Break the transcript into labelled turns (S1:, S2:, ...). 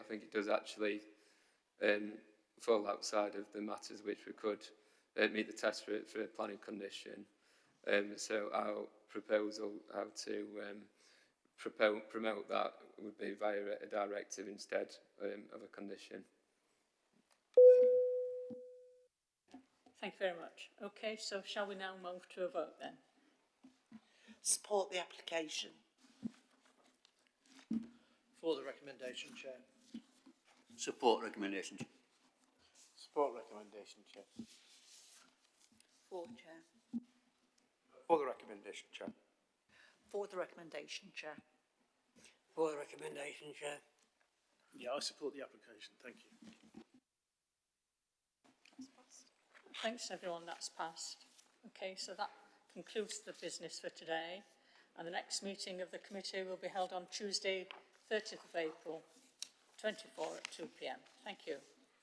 S1: think it does actually um, fall outside of the matters which we could uh, meet the test for, for a planning condition. Um, so our proposal, how to um, propo- promote that would be via a directive instead um, of a condition.
S2: Thank you very much. Okay, so shall we now move to a vote then?
S3: Support the application.
S4: For the recommendation, Chair.
S5: Support recommendation.
S4: Support recommendation, Chair.
S3: For Chair.
S4: For the recommendation, Chair.
S3: For the recommendation, Chair.
S6: For the recommendation, Chair.
S4: Yeah, I support the application, thank you.
S2: Thanks everyone, that's passed. Okay, so that concludes the business for today. And the next meeting of the committee will be held on Tuesday, 30th of April, 24 at 2 p.m. Thank you.